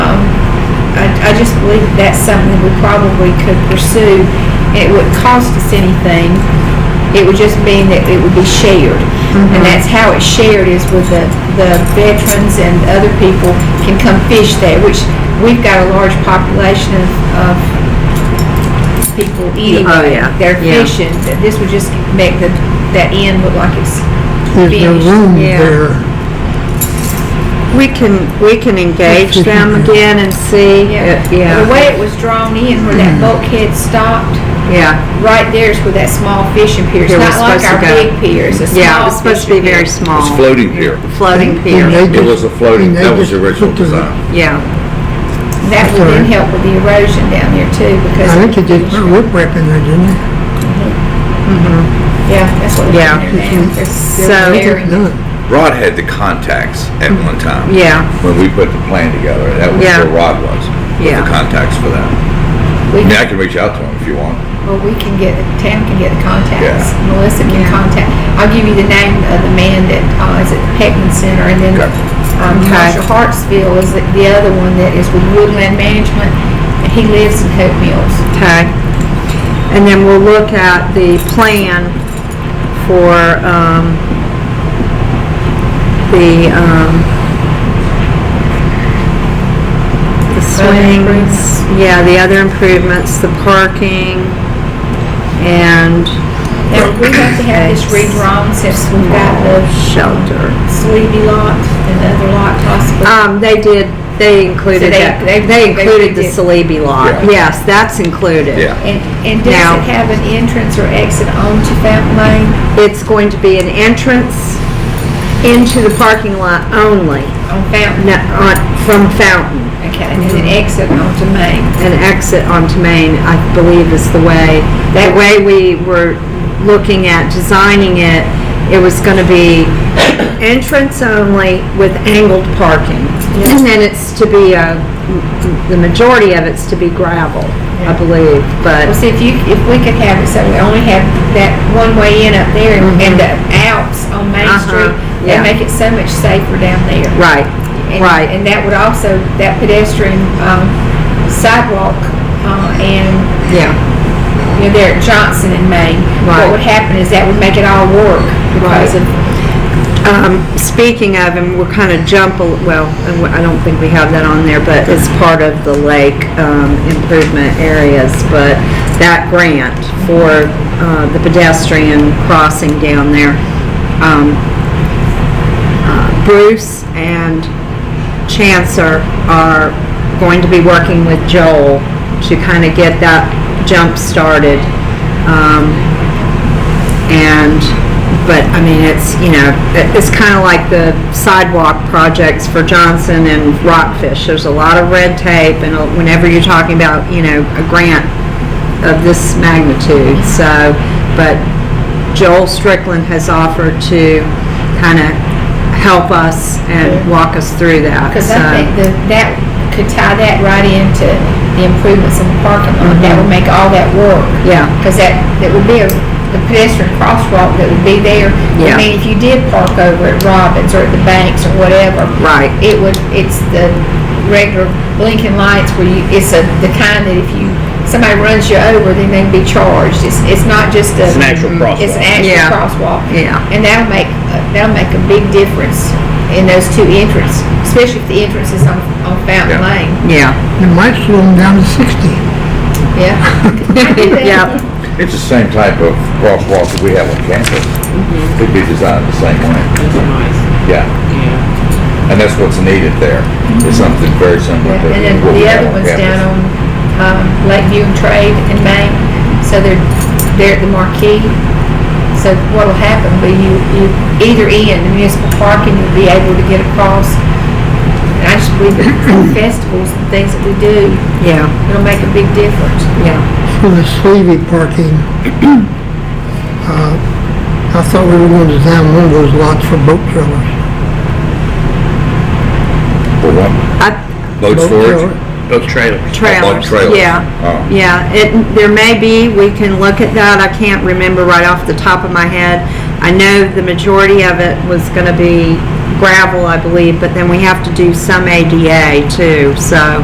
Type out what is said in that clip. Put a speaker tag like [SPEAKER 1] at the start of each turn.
[SPEAKER 1] Um, I just believe that that's something that we probably could pursue. and It wouldn't cost us anything. It would just mean that it would be shared.
[SPEAKER 2] Mm-hmm.
[SPEAKER 1] And that's how it's shared is with the, the veterans and other people can come fish there, which we've got a large population of, of people eating.
[SPEAKER 2] Oh, yeah.
[SPEAKER 1] They're
[SPEAKER 2] Yeah.
[SPEAKER 1] fishing. This would just make the, that end look like it's
[SPEAKER 3] There's no
[SPEAKER 1] finished.
[SPEAKER 3] room
[SPEAKER 2] yeah.
[SPEAKER 3] there.
[SPEAKER 2] We can, we can engage them again and see,
[SPEAKER 1] Yeah,
[SPEAKER 2] uh,
[SPEAKER 1] the
[SPEAKER 2] yeah, Mm-hmm.
[SPEAKER 1] way it was drawn in, where that bulkhead stopped,
[SPEAKER 2] yeah.
[SPEAKER 1] right there is where that small fishing pier, it's
[SPEAKER 2] Pier was
[SPEAKER 1] not like
[SPEAKER 2] supposed
[SPEAKER 1] our
[SPEAKER 2] to go.
[SPEAKER 1] big pier, it's a
[SPEAKER 2] Yeah,
[SPEAKER 1] small
[SPEAKER 2] it's supposed to be
[SPEAKER 1] fishing pier.
[SPEAKER 2] very small.
[SPEAKER 4] It's floating pier.
[SPEAKER 2] Floating pier,
[SPEAKER 3] And they
[SPEAKER 4] It was a
[SPEAKER 3] and
[SPEAKER 4] floating,
[SPEAKER 3] they
[SPEAKER 4] that was the
[SPEAKER 3] just
[SPEAKER 4] original
[SPEAKER 3] put the-
[SPEAKER 4] design.
[SPEAKER 2] yeah.
[SPEAKER 1] That would then help with the erosion down there too, because.
[SPEAKER 3] I think they did put a riprap in there, didn't they?
[SPEAKER 1] Yeah, that's what.
[SPEAKER 2] Yeah.
[SPEAKER 3] Mm-hmm.
[SPEAKER 2] So-
[SPEAKER 3] None.
[SPEAKER 4] Rod had the contacts at one time.
[SPEAKER 2] Yeah.
[SPEAKER 4] When we put the plan together, that was
[SPEAKER 2] Yeah.
[SPEAKER 4] where Rod was. with
[SPEAKER 2] Yeah.
[SPEAKER 4] The contacts for that. I mean, I can reach out to him if you want.
[SPEAKER 1] Well, we can get, the town can get the contacts,
[SPEAKER 4] Yeah.
[SPEAKER 1] Melissa can contact, I'll give you the name of the man that, uh, is at the Peckman Center, and then,
[SPEAKER 4] Okay.
[SPEAKER 1] um,
[SPEAKER 2] Okay.
[SPEAKER 1] Marshall Hartsville is the the other one that is with Woodland Management, and he lives in Hope Mills.
[SPEAKER 2] Okay. And then we'll look at the plan for, um, the, um, the swings. Yeah, the other improvements, the parking, and
[SPEAKER 1] Now, we have to have this redrawn since we've got the
[SPEAKER 2] shelter.
[SPEAKER 1] sleepy lot and the other lot possible.
[SPEAKER 2] Um, they did, they included
[SPEAKER 1] they-
[SPEAKER 2] that,
[SPEAKER 1] they-
[SPEAKER 2] they
[SPEAKER 1] they
[SPEAKER 2] included the
[SPEAKER 1] did.
[SPEAKER 2] Salibi lot.
[SPEAKER 4] Yeah.
[SPEAKER 2] Yes, that's included.
[SPEAKER 4] Yeah.
[SPEAKER 1] And, and does
[SPEAKER 2] Now-
[SPEAKER 1] it have an entrance or exit onto Fountain Lane?
[SPEAKER 2] It's going to be an entrance into the parking lot only,
[SPEAKER 1] On Fountain?
[SPEAKER 2] not on, from Fountain.
[SPEAKER 1] Okay, and then an exit onto Main.
[SPEAKER 2] An exit onto Main, I believe is the way, the way we were looking at designing it, it was gonna be entrance only with angled parking. And then it's to be a, the majority of it's to be gravel, I
[SPEAKER 1] Yeah.
[SPEAKER 2] believe, but.
[SPEAKER 1] Well, see, if you, if we could have it, so we only have that one way in up there and and the outs on Main
[SPEAKER 2] Mm-hmm. Uh-huh,
[SPEAKER 1] Street,
[SPEAKER 2] yeah.
[SPEAKER 1] that'd make it so much safer down there.
[SPEAKER 2] Right,
[SPEAKER 1] And-
[SPEAKER 2] right.
[SPEAKER 1] And that would also, that pedestrian, um, sidewalk, uh, and
[SPEAKER 2] Yeah,
[SPEAKER 1] you know, they're at Johnson and Maine.
[SPEAKER 2] Right.
[SPEAKER 1] What would happen is that would make it all work because
[SPEAKER 2] Right.
[SPEAKER 1] of,
[SPEAKER 2] um, speaking of, and we're kind of jump, a- well, and we- I don't think we have that on there, but it's part of the lake, um, improvement areas, but that grant for, uh, the pedestrian crossing down there, um, uh, Bruce and Chancellor are going to be working with Joel to kind of get that jump started. Um, and, but, I mean, it's, you know, it- it's kind of like the sidewalk projects for Johnson and Rockfish. There's a lot of red tape, and uh, whenever you're talking about, you know, a grant of this magnitude, so, but Joel Strickland has offered to kind of help us and walk us through that,
[SPEAKER 1] because
[SPEAKER 2] so.
[SPEAKER 1] I think that that could tie that right into the improvements in the parking lot. That would make all that work.
[SPEAKER 2] Mm-hmm. Yeah.
[SPEAKER 1] Because that, that would be a, the pedestrian crosswalk that would be there. I
[SPEAKER 2] Yeah.
[SPEAKER 1] mean, if you did park over at Robbins or at the banks or whatever.
[SPEAKER 2] Right.
[SPEAKER 1] It would, it's the regular blinking lights where you, it's a, the kind that if you, somebody runs you over, then they'd be charged. It's, it's not just a.
[SPEAKER 5] It's an actual
[SPEAKER 1] It's an
[SPEAKER 5] crosswalk.
[SPEAKER 1] actual
[SPEAKER 2] Yeah.
[SPEAKER 1] crosswalk.
[SPEAKER 2] Yeah.
[SPEAKER 1] And that'll make, that'll make a big difference in those two entrances, especially if the entrance is on, on Fountain
[SPEAKER 4] Yeah.
[SPEAKER 1] Lane.
[SPEAKER 2] Yeah.
[SPEAKER 3] It might slow them down to sixty.
[SPEAKER 1] Yeah. I do that.
[SPEAKER 2] Yep.
[SPEAKER 4] It's the same type of crosswalk that we have on campus. It'd be designed the same way. Yeah. And that's what's needed there. It's something very similar to
[SPEAKER 1] Yeah, And then
[SPEAKER 4] what we
[SPEAKER 1] the other
[SPEAKER 4] have on
[SPEAKER 1] one's down
[SPEAKER 4] campus.
[SPEAKER 1] on, um, Lakeview and Trade and Main, so they're, they're at the marquee. So what'll happen, will you, you, either end, the municipal parking, you'll be able to get across. And I just believe that for festivals and things that we do,
[SPEAKER 2] Yeah,
[SPEAKER 1] it'll make a big difference.
[SPEAKER 2] yeah.
[SPEAKER 3] For the sleevey parking, uh, I thought we were going to design one of those lots for boat trailers.
[SPEAKER 4] For what?
[SPEAKER 2] I,
[SPEAKER 4] Boat
[SPEAKER 3] Boat
[SPEAKER 4] storage?
[SPEAKER 3] trailer.
[SPEAKER 5] Both trailers.
[SPEAKER 2] trailers.
[SPEAKER 4] trailers.
[SPEAKER 2] Yeah,
[SPEAKER 4] Oh.
[SPEAKER 2] yeah. It, there may be, we can look at that. I can't remember right off the top of my head. I know the majority of it was gonna be gravel, I believe, but then we have to do some ADA too, so.